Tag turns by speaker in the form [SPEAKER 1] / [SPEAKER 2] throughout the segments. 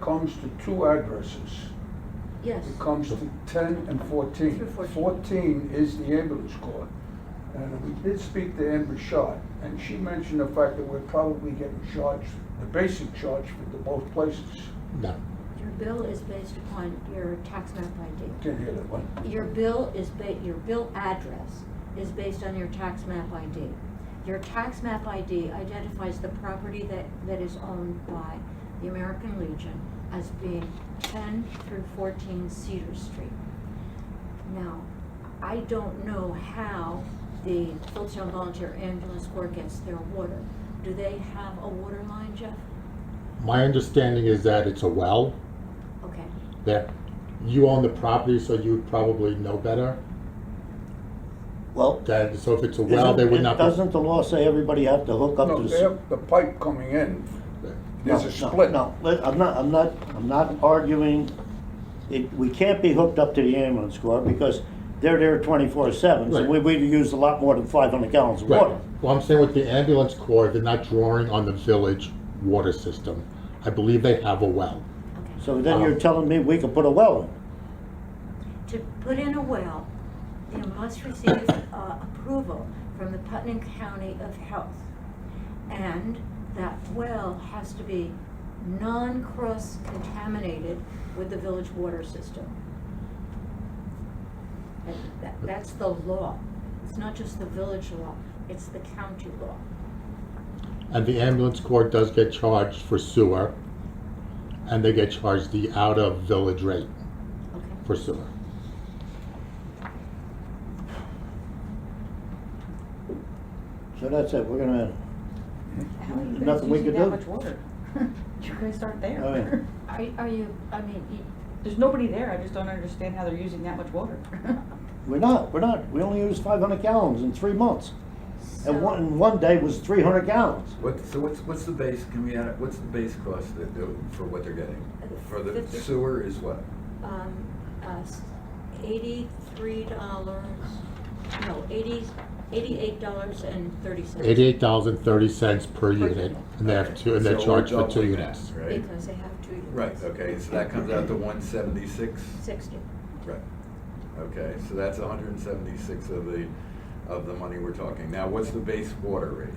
[SPEAKER 1] comes to two addresses.
[SPEAKER 2] Yes.
[SPEAKER 1] It comes to ten and fourteen.
[SPEAKER 2] Through 14.
[SPEAKER 1] Fourteen is the ambulance corps. And we did speak to Amber Shot, and she mentioned the fact that we're probably getting charged, the basic charge for the both places.
[SPEAKER 3] No.
[SPEAKER 2] Your bill is based upon your tax map ID.
[SPEAKER 1] Can't hear that one.
[SPEAKER 2] Your bill is ba, your bill address is based on your tax map ID. Your tax map ID identifies the property that, that is owned by the American Legion as being ten through fourteen Cedar Street. Now, I don't know how the Fulton Volunteer Ambulance Corps gets their water. Do they have a water line, Jeff?
[SPEAKER 3] My understanding is that it's a well,
[SPEAKER 2] Okay,
[SPEAKER 3] that you own the property, so you would probably know better.
[SPEAKER 4] Well,
[SPEAKER 3] That, so if it's a well, they would
[SPEAKER 4] isn't-
[SPEAKER 3] not be.
[SPEAKER 4] Doesn't the law say everybody has to hook up to
[SPEAKER 1] No,
[SPEAKER 4] the?
[SPEAKER 1] they have the pipe coming in. There's
[SPEAKER 4] No,
[SPEAKER 1] a
[SPEAKER 4] no,
[SPEAKER 1] split.
[SPEAKER 4] No, let- I'm not, I'm not, I'm not arguing, it, we can't be hooked up to the ambulance corps because they're there twenty-four seven, so
[SPEAKER 3] Right.
[SPEAKER 4] we, we use a lot more than five hundred gallons of
[SPEAKER 3] Right,
[SPEAKER 4] water.
[SPEAKER 3] well, I'm saying with the ambulance corps, they're not drawing on the village water system. I believe they have a well.
[SPEAKER 2] okay.
[SPEAKER 4] So then you're
[SPEAKER 3] Uh-huh.
[SPEAKER 4] telling me we could put a well in?
[SPEAKER 2] to put in a well, you must receive uh, approval from the Putnam County of Health. And that well has to be non-cross contaminated with the village water system. And that- That's the law. It's not just the village law, it's the county law.
[SPEAKER 3] And the ambulance corps does get charged for sewer, and they get charged the out-of-village rate
[SPEAKER 2] Okay.
[SPEAKER 3] for sewer.
[SPEAKER 4] So that's it, we're gonna,
[SPEAKER 5] How are you
[SPEAKER 4] There's
[SPEAKER 5] guys
[SPEAKER 4] nothing we
[SPEAKER 5] using
[SPEAKER 4] could
[SPEAKER 5] that
[SPEAKER 4] do.
[SPEAKER 5] much water? You're gonna start
[SPEAKER 4] Oh,
[SPEAKER 5] there.
[SPEAKER 4] yeah.
[SPEAKER 2] Are, are you, I mean, you-
[SPEAKER 5] There's nobody there, I just don't understand how they're using that much water.
[SPEAKER 4] we're not, we're not, we only used five hundred gallons in three months.
[SPEAKER 2] so.
[SPEAKER 4] And one, and one day was three hundred gallons.
[SPEAKER 6] What, so what's, what's the base, can we add, what's the base cost that, they're- for what they're getting? For the
[SPEAKER 2] Fifty.
[SPEAKER 6] sewer is what?
[SPEAKER 2] um, uh, eighty-three dollars, no, eighty, eighty-eight dollars and thirty cents.
[SPEAKER 3] Eighty-eight thousand thirty cents per unit, and they have two, and they're
[SPEAKER 6] So we're
[SPEAKER 3] charged for two
[SPEAKER 6] doubling that,
[SPEAKER 3] units.
[SPEAKER 6] Right,
[SPEAKER 2] Because they have two units.
[SPEAKER 6] right, uh, okay, so that comes out to one seventy-six,
[SPEAKER 2] Sixty.
[SPEAKER 6] right, okay, so that's hundred and seventy-six of the, of the money we're talking. Now, what's the base water rate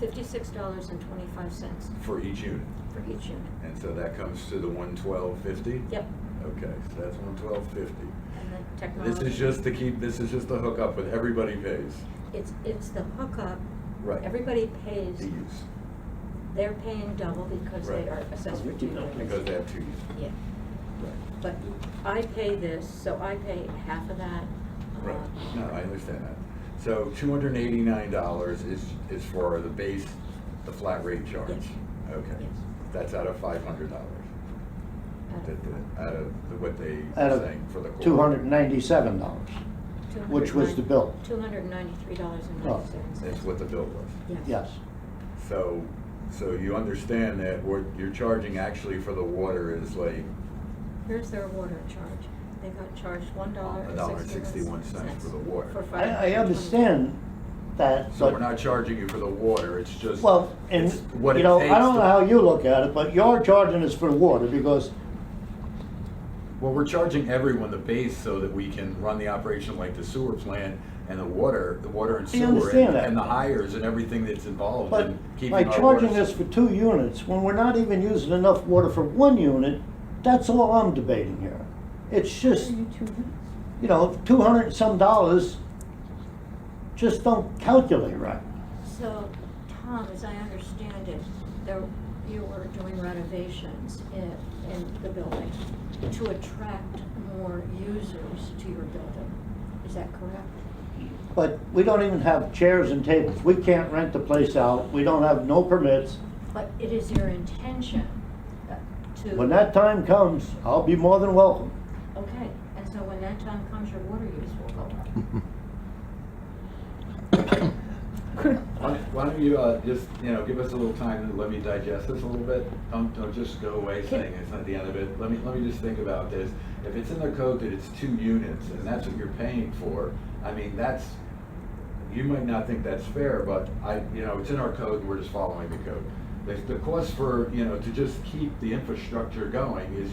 [SPEAKER 2] Fifty-six dollars and twenty-five cents
[SPEAKER 6] for each unit?
[SPEAKER 2] for each unit.
[SPEAKER 6] And so that comes to the one twelve fifty?
[SPEAKER 2] Yep,
[SPEAKER 6] Okay, so that's one twelve fifty.
[SPEAKER 2] and the technology.
[SPEAKER 6] This is just to keep, this is just a hookup, but everybody pays,
[SPEAKER 2] It's, it's the hookup.
[SPEAKER 6] Right.
[SPEAKER 2] Everybody
[SPEAKER 6] to
[SPEAKER 2] pays,
[SPEAKER 6] use,
[SPEAKER 2] they're paying double because they
[SPEAKER 6] Right.
[SPEAKER 2] are assessed for two units.
[SPEAKER 6] because they have two uses.
[SPEAKER 2] Yeah.
[SPEAKER 6] Right.
[SPEAKER 2] But I pay this, so I pay half of that. uh,
[SPEAKER 6] Right, no, I understand that. So two hundred and eighty-nine dollars is, is for the base, the flat rate charge?
[SPEAKER 2] Yes.
[SPEAKER 6] Okay.
[SPEAKER 2] Yes.
[SPEAKER 6] That's out of five hundred dollars,
[SPEAKER 2] out of-
[SPEAKER 6] out of the- what they
[SPEAKER 4] Out
[SPEAKER 6] are
[SPEAKER 4] of
[SPEAKER 6] saying for the quarter?
[SPEAKER 4] Two hundred and ninety-seven dollars. Which was the bill?
[SPEAKER 2] Two hundred and ninety-three dollars and ninety-seven cents.
[SPEAKER 6] That's what the bill was.
[SPEAKER 4] Yes,
[SPEAKER 6] So, so you understand that what you're charging actually for the water is like
[SPEAKER 2] Here's their water charge. They got charged one dollar
[SPEAKER 6] a dollar and sixty-one cents for the water.
[SPEAKER 4] I, I understand that, but.
[SPEAKER 6] So we're not charging you for the water, it's just.
[SPEAKER 4] Well, and,
[SPEAKER 6] it's what
[SPEAKER 4] you
[SPEAKER 6] it
[SPEAKER 4] know, I
[SPEAKER 6] takes
[SPEAKER 4] don't know
[SPEAKER 6] to-
[SPEAKER 4] how you look at it, but you're charging us for the water because,
[SPEAKER 6] Well, we're charging everyone the base so that we can run the operation like the sewer plant and the water, the water and
[SPEAKER 4] I
[SPEAKER 6] sewer
[SPEAKER 4] understand
[SPEAKER 6] and,
[SPEAKER 4] that.
[SPEAKER 6] and the hires and everything that's involved
[SPEAKER 4] but
[SPEAKER 6] in keeping
[SPEAKER 4] by
[SPEAKER 6] our water.
[SPEAKER 4] charging us for two units, when we're not even using enough water for one unit, that's all I'm debating here. It's just, you know, two hundred and some dollars, just don't calculate right.
[SPEAKER 2] So, Tom, as I understand it, there, you were doing renovations in, in the building to attract more users to your building. Is that correct?
[SPEAKER 4] But we don't even have chairs and tables. We can't rent the place out. We don't have no permits.
[SPEAKER 2] But it is your intention uh, to.
[SPEAKER 4] When that time comes, I'll be more than welcome.
[SPEAKER 2] Okay, and so when that time comes, your water use will go up.
[SPEAKER 6] Why why don't you, uh, just, you know, give us a little time and let me digest this a little bit? Don't, don't just go away saying it's not the end of it. Let me, let me just think about this. If it's in the code that it's two units and that's what you're paying for, I mean, that's, you might not think that's fair, but I, you know, it's in our code and we're just following the code. The, the cost for, you know, to just keep the infrastructure going is